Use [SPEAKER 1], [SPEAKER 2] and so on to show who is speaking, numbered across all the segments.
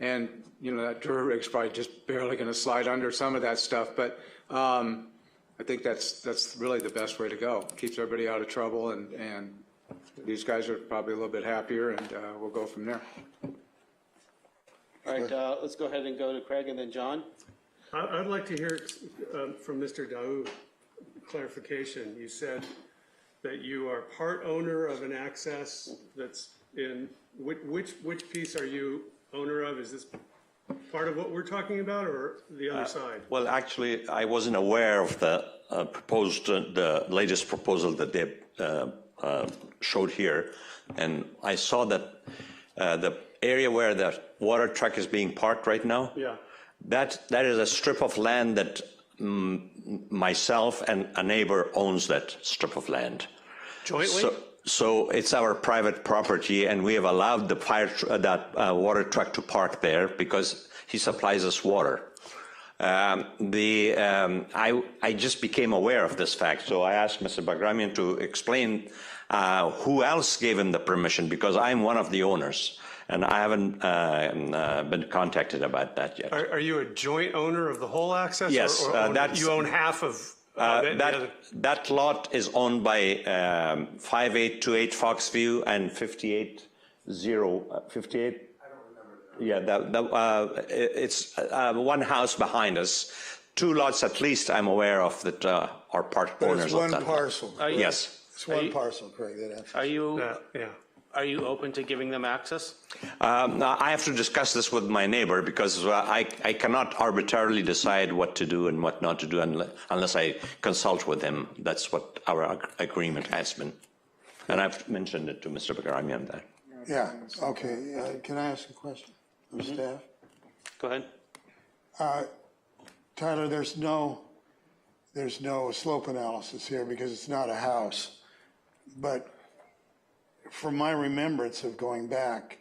[SPEAKER 1] And, you know, that Dura rig's probably just barely going to slide under some of that stuff, but um, I think that's, that's really the best way to go. Keeps everybody out of trouble, and, and these guys are probably a little bit happier, and uh, we'll go from there.
[SPEAKER 2] All right, uh, let's go ahead and go to Craig and then John.
[SPEAKER 3] I- I'd like to hear um, from Mr. Daoud clarification. You said that you are part owner of an access that's in, which, which, which piece are you owner of? Is this part of what we're talking about or the other side?
[SPEAKER 4] Well, actually, I wasn't aware of the uh, proposed, uh, the latest proposal that they uh, uh, showed here. And I saw that uh, the area where the water truck is being parked right now.
[SPEAKER 3] Yeah.
[SPEAKER 4] That, that is a strip of land that mm, myself and a neighbor owns that strip of land.
[SPEAKER 3] Jointly?
[SPEAKER 4] So- So it's our private property, and we have allowed the fire, tr- uh, that uh, water truck to park there because he supplies us water. Um, The, um, I, I just became aware of this fact, so I asked Mr. Bagramian to explain uh, who else gave him the permission, because I'm one of the owners, and I haven't uh, um, uh, been contacted about that yet.
[SPEAKER 3] Are, are you a joint owner of the whole access? or-
[SPEAKER 4] Yes,
[SPEAKER 3] or
[SPEAKER 4] uh,
[SPEAKER 3] own-
[SPEAKER 4] that's-
[SPEAKER 3] You own half of
[SPEAKER 4] Uh,
[SPEAKER 3] of it? and the
[SPEAKER 4] That,
[SPEAKER 3] other-
[SPEAKER 4] that lot is owned by um, 5828 Foxview and 58 uh, 58? Yeah, that, that, uh, it- it's uh, one house behind us. Two lots at least I'm aware of that uh, are part
[SPEAKER 5] But
[SPEAKER 4] owners
[SPEAKER 5] it's
[SPEAKER 4] of
[SPEAKER 5] one
[SPEAKER 4] that.
[SPEAKER 5] parcel.
[SPEAKER 4] Yes.
[SPEAKER 5] It's one parcel, Craig, that access.
[SPEAKER 2] Are you,
[SPEAKER 3] Yeah, uh, yeah.
[SPEAKER 2] are you open to giving them access?
[SPEAKER 4] Um, now, I have to discuss this with my neighbor because uh, I, I cannot arbitrarily decide what to do and what not to do unle- unless I consult with him. That's what our ag- agreement has been. And I've mentioned it to Mr. Bagramian there.
[SPEAKER 5] Yeah, okay, uh, can I ask a question of
[SPEAKER 3] Mm-hmm.
[SPEAKER 5] staff?
[SPEAKER 2] Go ahead.
[SPEAKER 5] Tyler, there's no, there's no slope analysis here because it's not a house. But from my remembrance of going back,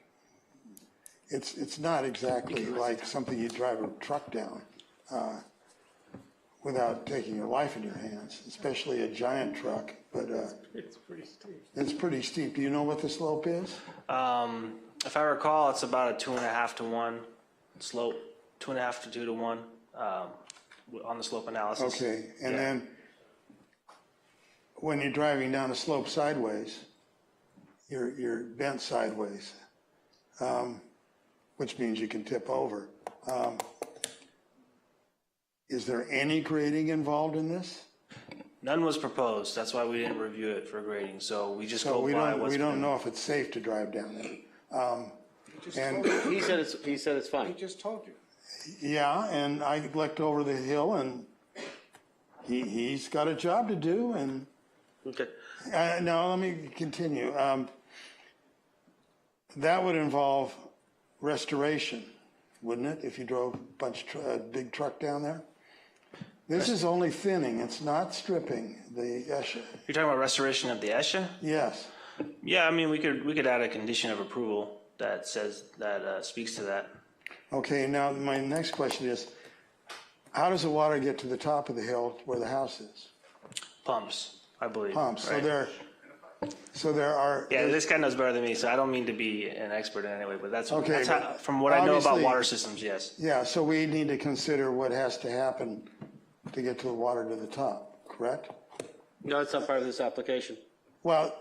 [SPEAKER 5] it's, it's not exactly like something you drive a truck down uh, without taking your life in your hands, especially a giant truck, but uh,
[SPEAKER 3] It's pretty steep.
[SPEAKER 5] it's pretty steep. Do you know what the slope is?
[SPEAKER 6] Um, if I recall, it's about a two and a half to one slope, two and a half to two to one, um, w- on the slope analysis.
[SPEAKER 5] Okay, and then when you're driving down a slope sideways, you're, you're bent sideways, um, which means you can tip over. Um, Is there any grading involved in this?
[SPEAKER 6] None was proposed, that's why we didn't review it for grading, so we just
[SPEAKER 5] So
[SPEAKER 6] go
[SPEAKER 5] we
[SPEAKER 6] by
[SPEAKER 5] don't,
[SPEAKER 6] what's.
[SPEAKER 5] we don't
[SPEAKER 6] been-
[SPEAKER 5] know if it's safe to drive down there. Um, And,
[SPEAKER 2] He said it's, he said it's fine.
[SPEAKER 1] Just told you.
[SPEAKER 5] yeah, and I looked over the hill and he, he's got a job to do and
[SPEAKER 2] Okay.
[SPEAKER 5] Uh, no, let me continue. Um, that would involve restoration, wouldn't it? If you drove a bunch, tr- a big truck down there? This is only thinning, it's not stripping the Esha.
[SPEAKER 6] You're talking about restoration of the ESHA?
[SPEAKER 5] Yes,
[SPEAKER 6] Yeah, I mean, we could, we could add a condition of approval that says, that, uh, speaks to that.
[SPEAKER 5] okay, now my next question is, how does the water get to the top of the hill where the house is?
[SPEAKER 6] Pumps, I believe.
[SPEAKER 5] Pumps, so
[SPEAKER 6] right?
[SPEAKER 5] there, so there are.
[SPEAKER 6] Yeah, this guy knows better than me, so I don't mean to be an expert in any way, but that's,
[SPEAKER 5] Okay,
[SPEAKER 6] that's how,
[SPEAKER 5] but
[SPEAKER 6] from what I know about
[SPEAKER 5] obviously-
[SPEAKER 6] water systems, yes.
[SPEAKER 5] Yeah, so we need to consider what has to happen to get to the water to the top, correct?
[SPEAKER 2] No, it's not part of this application.
[SPEAKER 5] Well,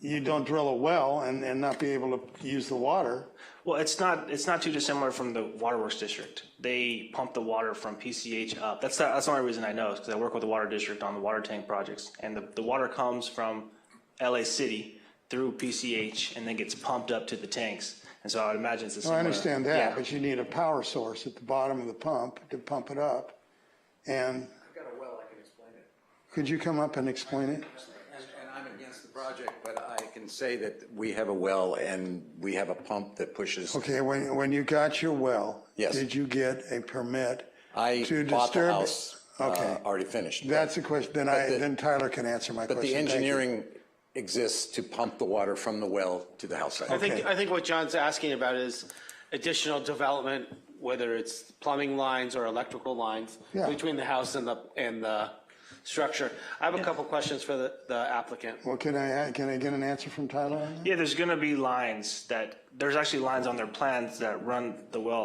[SPEAKER 5] you don't drill a well and, and not be able to use the water.
[SPEAKER 6] Well, it's not, it's not too dissimilar from the waterworks district. They pump the water from PCH up. That's, the- that's the only reason I know, is because I work with the water district on the water tank projects. And the, the water comes from LA City through PCH and then gets pumped up to the tanks. And so I would imagine it's the same.
[SPEAKER 5] I understand that, but you need a power source at the bottom of the pump to pump it up. And
[SPEAKER 7] I've got a well, I can explain it.
[SPEAKER 5] could you come up and explain it?
[SPEAKER 7] And, and I'm against the project, but I can say that we have a well and we have a pump that pushes.
[SPEAKER 5] Okay, when, when you got your well,
[SPEAKER 7] Yes.
[SPEAKER 5] did you get a permit?
[SPEAKER 7] I
[SPEAKER 5] to
[SPEAKER 7] bought the
[SPEAKER 5] disturb-
[SPEAKER 7] house, uh,
[SPEAKER 5] Okay.
[SPEAKER 7] already finished.
[SPEAKER 5] That's the question, then I,
[SPEAKER 7] the-
[SPEAKER 5] then Tyler can answer my
[SPEAKER 7] But
[SPEAKER 5] question.
[SPEAKER 7] the
[SPEAKER 5] Thank you.
[SPEAKER 7] engineering exists to pump the water from the well to the house.
[SPEAKER 2] I think, I think what John's asking about is additional development, whether it's plumbing lines or electrical lines
[SPEAKER 5] Yeah.
[SPEAKER 2] between the house and the, and the structure. I have a couple questions for the the applicant.
[SPEAKER 5] Well, can I, can I get an answer from Tyler on that?
[SPEAKER 6] Yeah, there's gonna be lines that, there's actually lines on their plans that run the well